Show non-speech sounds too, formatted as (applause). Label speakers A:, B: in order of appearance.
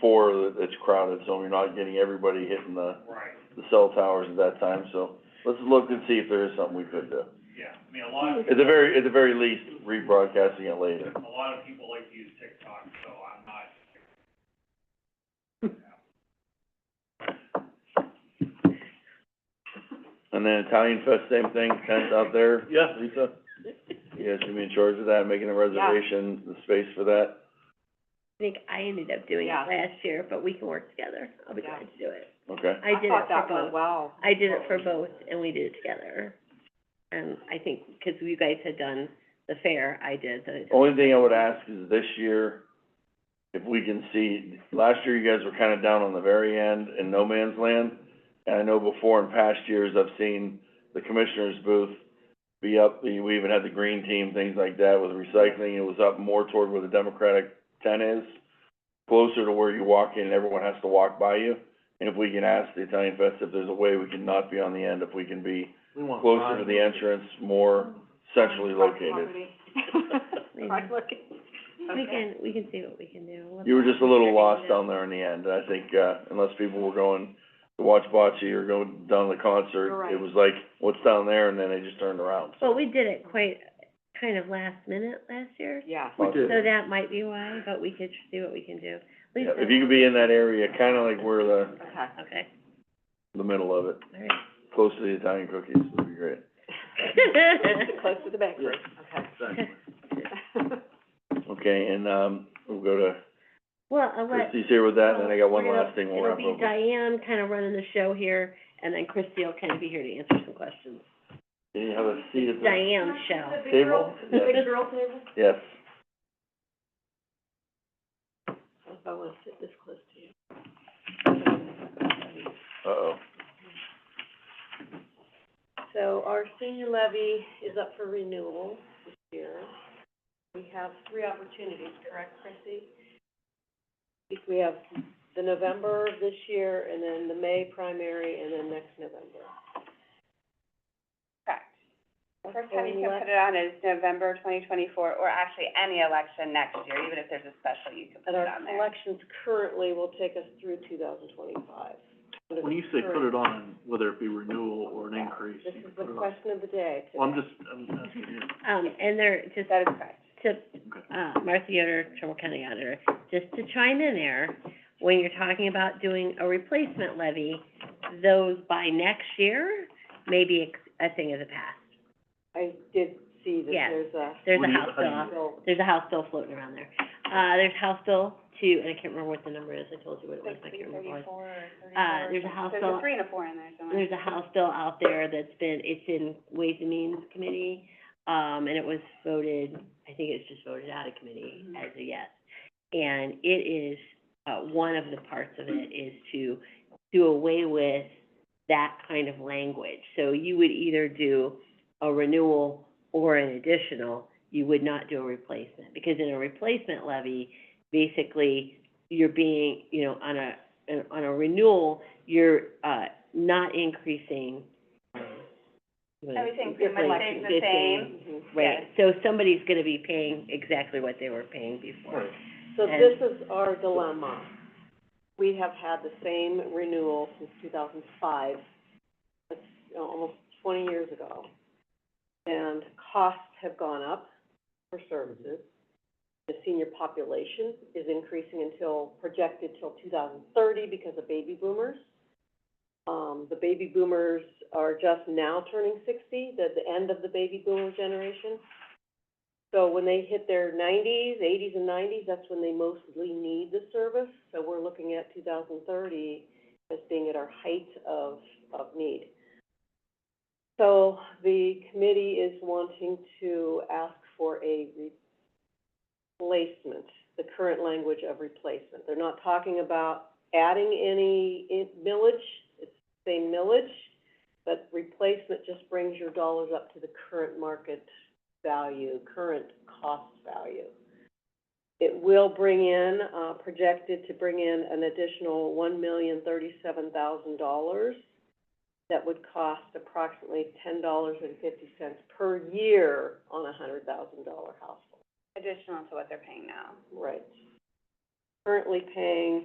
A: four that, that's crowded, so you're not getting everybody hitting the,
B: Right,
A: the cell towers at that time, so let's look and see if there is something we could do.
B: yeah, I mean, a lot of,
A: At the very, at the very least, rebroadcasting it later.
B: a lot of people like to use TikTok, so I'm not.
A: And then Italian Fest, same thing, tents out there.
C: Yeah.
A: Lisa? You guys gonna be in charge of that, making a reservation, the space for that?
D: I think I ended up doing it
E: Yeah.
D: last year, but we can work together. I'll be
E: Yeah.
D: glad to do it.
A: Okay.
D: I did it
E: thought that
D: for
E: went
D: both.
E: well.
D: I did it for both, and we did it together. And I think, because you guys had done the fair, I did the,
A: Only thing I would ask is this year, if we can see, last year you guys were kinda down on the very end in no man's land. And I know before in past years, I've seen the commissioner's booth be up, we we even had the green team, things like that with recycling. It was up more toward where the Democratic tent is, closer to where you walk in, everyone has to walk by you. And if we can ask the Italian Fest if there's a way we can not be on the end, if we can be
C: We want
A: closer to the entrance, more centrally located.
E: Front looking.
D: we can, we can see what we can do. We'll-
A: You were just a little lost
D: Yeah.
A: down there in the end, I think, uh, unless people were going to watch bocce or going down to the
E: You're
A: concert,
E: right.
A: it was like, what's down there, and then they just turned around.
D: But we did it quite, kind of last minute last year,
E: Yeah.
C: We
D: so
C: did.
D: that might be why, but we could see what we can do.
A: Yeah,
D: Lisa?
A: If you could be in that area, kinda like where the,
E: Okay.
D: Okay,
A: the middle of it,
D: all right.
A: close to the Italian cookies, would be great.
D: (laughs)
E: Close to the bakery, okay.
A: Okay, and, um, we'll go to,
D: Well, I'll let,
A: Christie's here with that, and then I got one
D: We're gonna-
A: last thing we'll wrap up
D: It'll
A: with.
D: be Diane kind of running the show here, and then Christie will kind of be here to answer some questions.
A: Can you have a seat at the
D: Diane's show.
A: table? Yes. Yes,
E: If I wanna sit this close to you.
A: uh-oh,
E: So our senior levy is up for renewal this year. We have three opportunities, correct, Chrissy? I think We have the November of this year, and then the May primary, and then next November.
F: Correct. First time you
E: Or
F: can
E: elec-
F: put it on is November twenty twenty-four, or actually any election next year, even if there's a special, you can put
E: And
F: it
E: our
F: on there.
E: elections currently will take us through two thousand twenty-five.
C: When you say put it on, whether it be renewal or an increase,
E: This
C: you
E: is
C: put it
E: the
C: on.
E: question of the day.
C: Well, I'm just, I'm asking you.
D: Um, and they're just,
F: That is correct.
D: to, uh, Martha Yoder, Trumbull County Auditor, just to chime in there, when you're talking about doing a replacement levy, those by next year may be ex- a thing of the past.
E: I did see that
D: Yeah.
E: there's a,
D: There's
C: What
D: a
C: do you-
D: house
C: how do you-
D: bill,
E: so,
D: there's a house bill floating around there. Uh, there's house bill two, and I can't remember what the number is, I told you what it was, but I can't remember what it was.
F: Sixty, thirty-four, or
D: Uh,
F: thirty-four,
D: there's a house
F: there's
D: bill-
F: a three and a four in there somewhere.
D: There's a House bill out there that's been, it's in Ways and Means Committee, um, and it was voted, I think it's just voted out of committee
F: Mhm.
D: as a yes. And it is, uh, one of the parts of it is to do away with that kind of language. So you would either do a renewal or an additional, you would not do a replacement. Because in a replacement levy, basically, you're being, you know, on a, an- on a renewal, you're, uh, not increasing.
F: Everything pretty much stays the same.
E: mhm.
D: Right, so somebody's gonna be paying exactly what they were paying before.
E: So
D: And-
E: this is our dilemma. We have had the same renewal since two thousand five, that's you know, almost twenty years ago. And costs have gone up for services. The senior population is increasing until, projected till two thousand thirty because of baby boomers. Um, the baby boomers are just now turning sixty, the, the end of the baby boomer generation. So when they hit their nineties, eighties and nineties, that's when they mostly need the service. So we're looking at two thousand thirty as being at our height of, of need. So the committee is wanting to ask for a replacement, the current language of replacement. They're not talking about adding any i- millage, it's the same millage, but replacement just brings your dollars up to the current market value, current cost value. It will bring in, uh, projected to bring in an additional one million thirty-seven thousand dollars. That would cost approximately ten dollars and fifty cents per year on a hundred thousand dollar household.
F: Additional to what they're paying now.
E: Right. Currently paying